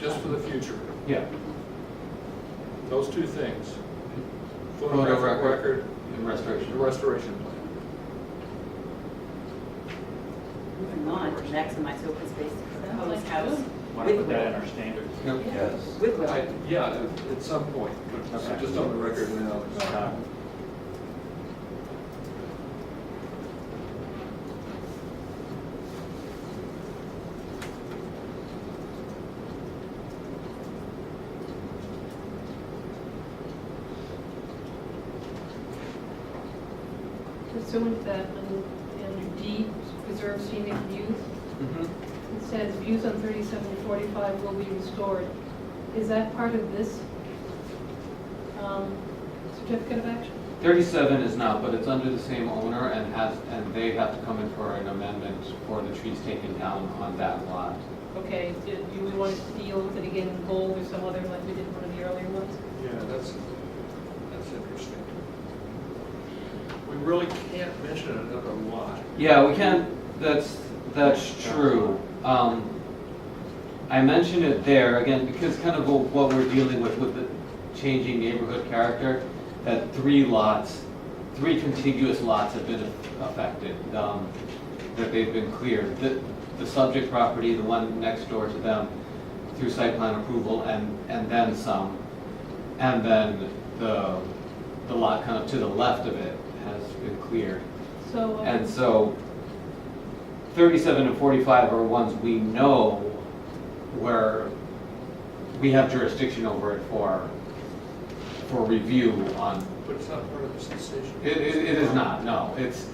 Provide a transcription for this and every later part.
just for the future, Yeah. those two things. Photographic Photographic record. and restoration. and Restoration plan. Moving on to maximize open space for the host house. Want to with put that in will. our standards? Yep. Yes. With will. I- Yeah, at- at some point, but Okay. just on the record now. It's not- Pursuant to that, under- under D, preserve scenic views, Mhm. it says views on 3745 will be restored. Is that part of this um, certificate of action? Thirty-seven is not, but it's under the same owner and has, and they have to come in for an amendment for the trees taken down on that lot. Okay, do do we want to deal with it again in bold or some other, like we did one of the earlier ones? Yeah, that's, that's interesting. We really can't mention another lot. Yeah, we can, that's, that's true. Um, I mentioned it there, again, because kind of what we're dealing with, with the changing neighborhood character, that three lots, three contiguous lots have been affected, um, that they've been cleared. The, the subject property, the one next door to them, through site plan approval, and, and then some. And then the, the lot kind of to the left of it has been cleared. So, um, And so thirty-seven and forty-five are ones we know where we have jurisdiction over it for, for review on, But it's not part of this decision. it, it it is not, no, it's,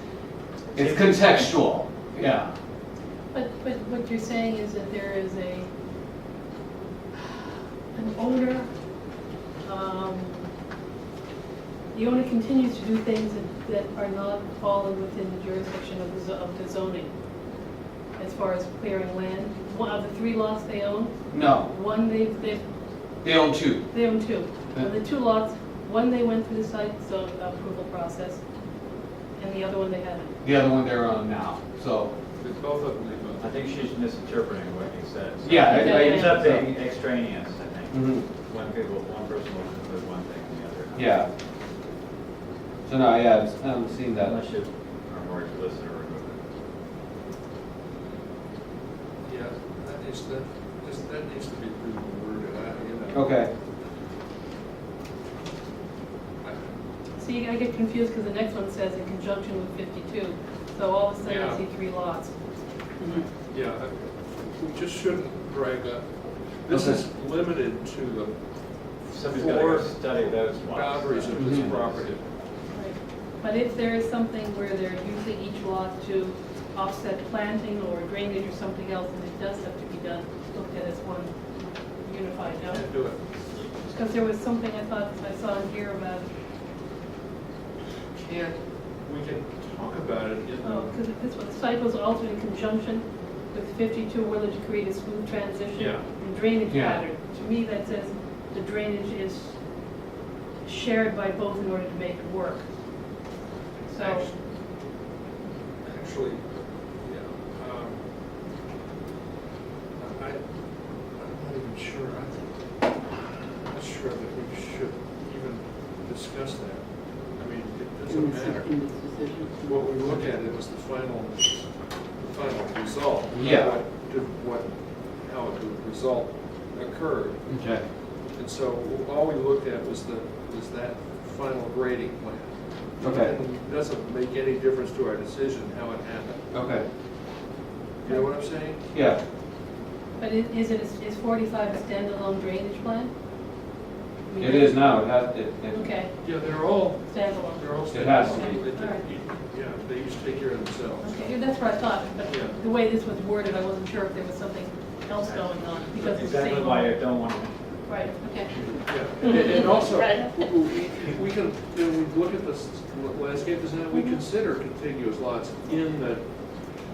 it's contextual, yeah. But, but what you're saying is that there is a, an owner, um, the owner continues to do things that- that are not falling within the jurisdiction of the, zo- of the zoning, as far as clearing land. One of the three lots they own, No, one they've, they've, they own two, they own two. Of the two lots, one they went through the site zone approval process, and the other one they haven't. the other one they're on now, so, It's Both of them, they both. I think she's misinterpreting what he said. Yeah, I- I- It's up being extraneous, I think. mhm, One people, one person will conclude one thing and the other. not. yeah. So no, yeah, I've- I haven't seen that. Unless you are more explicit or remove it. Yeah, that needs to, just, that needs to be reworded, I, you know. Okay, I- See, I get confused because the next one says in conjunction with 52, so all of a sudden Yeah. I see three lots. Mhm. Yeah, I- we just shouldn't drag up. This is limited to the Somebody's got to go Four study those ones. boundaries of this Mm-hmm. Mhm. property. But if there is something where they're using each lot to offset planting or drainage or something else, and it does have to be done, looked at as one unified, no? Can't do it. Because there was something I thought I saw in here about, Can't, we can talk about it in oh, the. because this one, the site was altered in conjunction with 52 whether to create a smooth transition. Yeah. and Drainage Yeah. pattern. To me, that says the drainage is shared by both in order to make it work. So, Actu- Actually, yeah. um, I, I'm not even sure, I think, I'm not sure that we should even discuss that. I mean, it doesn't In this- matter. in this decision. What we look at it was the final, the final result. not Yeah. What, did- what, how the result occurred. okay. And so all we looked at was the, was that final grading plan. Okay. And it doesn't make any difference to our decision how it happened. Okay, You know what I'm saying? yeah, but i- is it, is 45 a standalone drainage plan? I mean, it is now, it has, it, it, Okay, Yeah, they're all, standalone. they're all. It has to be. They take- Yeah, they used to take care of themselves. Okay, that's what I thought, but Yeah. the way this was worded, I wasn't sure if there was something else going on because it's the Exactly same. why I don't want to Right, okay. Yeah, and- and also, we can, when we look at this landscape design, we consider contiguous lots in the,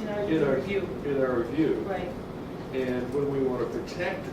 In our in our, review. in our review. Right. And when we want to protect